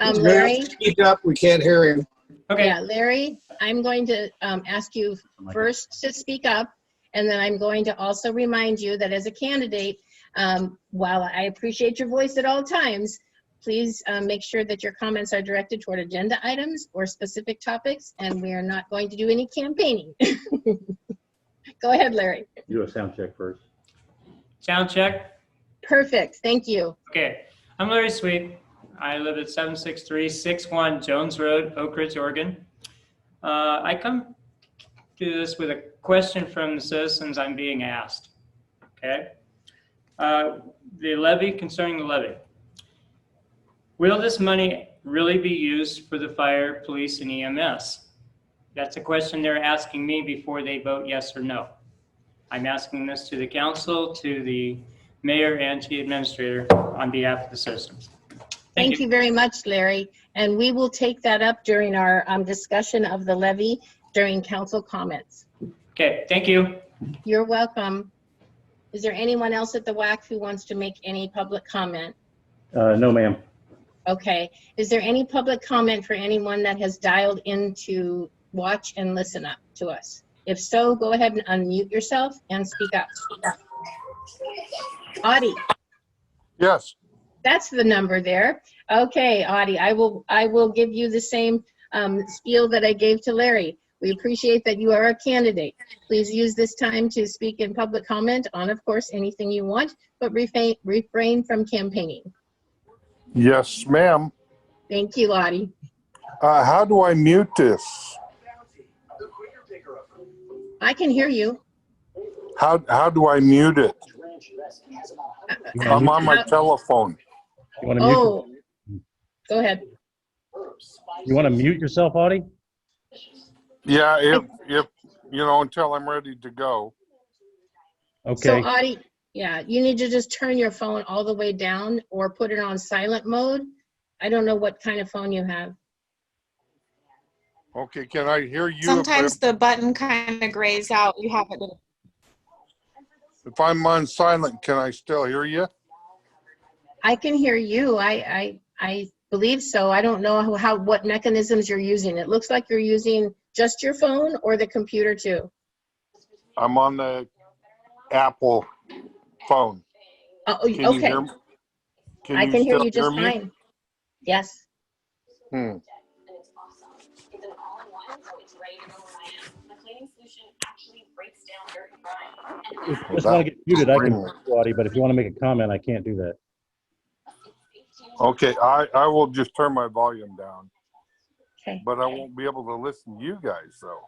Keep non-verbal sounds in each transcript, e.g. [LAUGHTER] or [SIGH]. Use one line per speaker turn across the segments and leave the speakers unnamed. Um,
Ma'am.
Larry,
Speak up, we can't hear him.
Okay,
yeah, Larry, I'm going to um, ask you first to speak up, and then I'm going to also remind you that as a candidate, um, while I appreciate your voice at all times, please um, make sure that your comments are directed toward agenda items or specific topics, and we are not going to do any campaigning. [LAUGHS] Go ahead, Larry.
Do a sound check first.
sound check.
Perfect, thank you.
Okay, I'm Larry Sweet. I live at 76361 Jones Road, Oak Ridge, Oregon. Uh, I come to this with a question from the citizens I'm being asked. Okay? Uh, The levy, concerning the levy. Will this money really be used for the fire, police, and EMS? That's a question they're asking me before they vote yes or no. I'm asking this to the council, to the mayor, and to the administrator on behalf of the citizens.
Thank you very much, Larry. And we will take that up during our um, discussion of the levy during council comments.
Okay, thank you.
You're welcome. Is there anyone else at the WAC who wants to make any public comment?
Uh, no, ma'am.
Okay. Is there any public comment for anyone that has dialed in to watch and listen up to us? If so, go ahead and unmute yourself and speak up. Audie?
Yes.
That's the number there. Okay, Audie, I will, I will give you the same um, spiel that I gave to Larry. We appreciate that you are a candidate. Please use this time to speak in public comment on, of course, anything you want, but refrain, refrain from campaigning.
Yes, ma'am.
Thank you, Audie.
Uh, how do I mute this?
I can hear you.
How, how do I mute it? I'm on my telephone.
You want to mute,
Oh, go ahead.
you want to mute yourself, Audie?
Yeah, if, if, you know, until I'm ready to go.
Okay,
So uh, Audie, yeah, you need to just turn your phone all the way down or put it on silent mode. I don't know what kind of phone you have.
Okay, can I hear you? if I-
Sometimes the button kind of grays out. You have it.
If I'm on silent, can I still hear you?
I can hear you. I, I, I believe so. I don't know how- how, what mechanisms you're using. It looks like you're using just your phone or the computer too.
I'm on the Apple phone.
Oh,
Can you
okay.
hear me?
I can hear
still
you just
me?
fine. Yes.
Hmm.
just want to get muted, I can, mute you, Audie, but if you want to make a comment, I can't do that.
Okay, I, I will just turn my volume down,
Okay.
but I won't be able to listen to you guys though.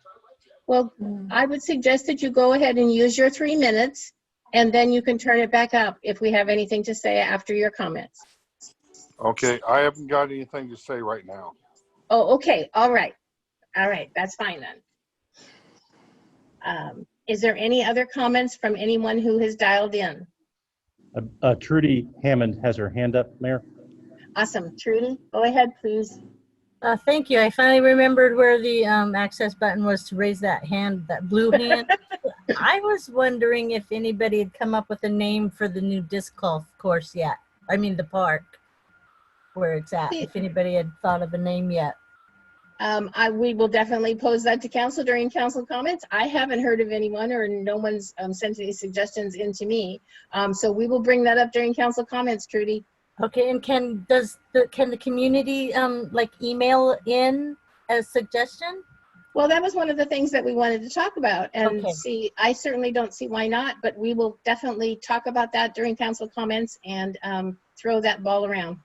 Well, I would suggest that you go ahead and use your three minutes and then you can turn it back up if we have anything to say after your comments.
Okay, I haven't got anything to say right now.
Oh, okay. All right. All right. That's fine then. Um, is there any other comments from anyone who has dialed in?
Uh, uh, Trudy Hammond has her hand up, Mayor.
Awesome. Trudy, go ahead, please.
Uh, thank you. I finally remembered where the um, access button was to raise that hand, that blue hand. I was wondering if anybody had come up with a name for the new disc golf course yet. I mean, the park where it's at. If anybody had thought of a name yet.
Um, I, we will definitely pose that to council during council comments. I haven't heard of anyone or no one's um, sent any suggestions in to me. Um, so we will bring that up during council comments, Trudy.
Okay, and can does the can the community um like email in a suggestion?
Well, that was one of the things that we wanted to talk about and
Okay.
see, I certainly don't see why not, but we will definitely talk about that during council comments and um, throw that ball around.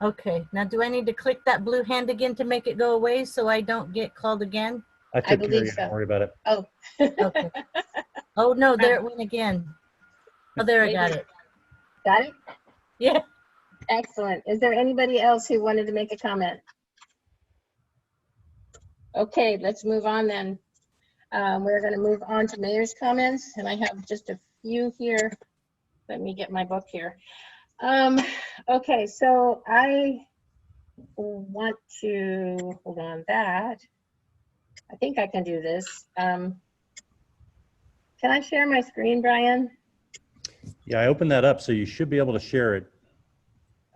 Okay, now do I need to click that blue hand again to make it go away so I don't get called again?
I took care
believe
of you,
so.
don't worry about it.
Okay. oh no, there it went again. Oh, there I got it.
Got it?
Yeah.
Excellent. Is there anybody else who wanted to make a comment? Okay, let's move on then. Um, We're going to move on to mayor's comments, and I have just a few here. Let me get my book here. Um, Okay, so I want to, hold on that. I think I can do this. Um, Can I share my screen, Brian?
Yeah, I opened that up, so you should be able to share it.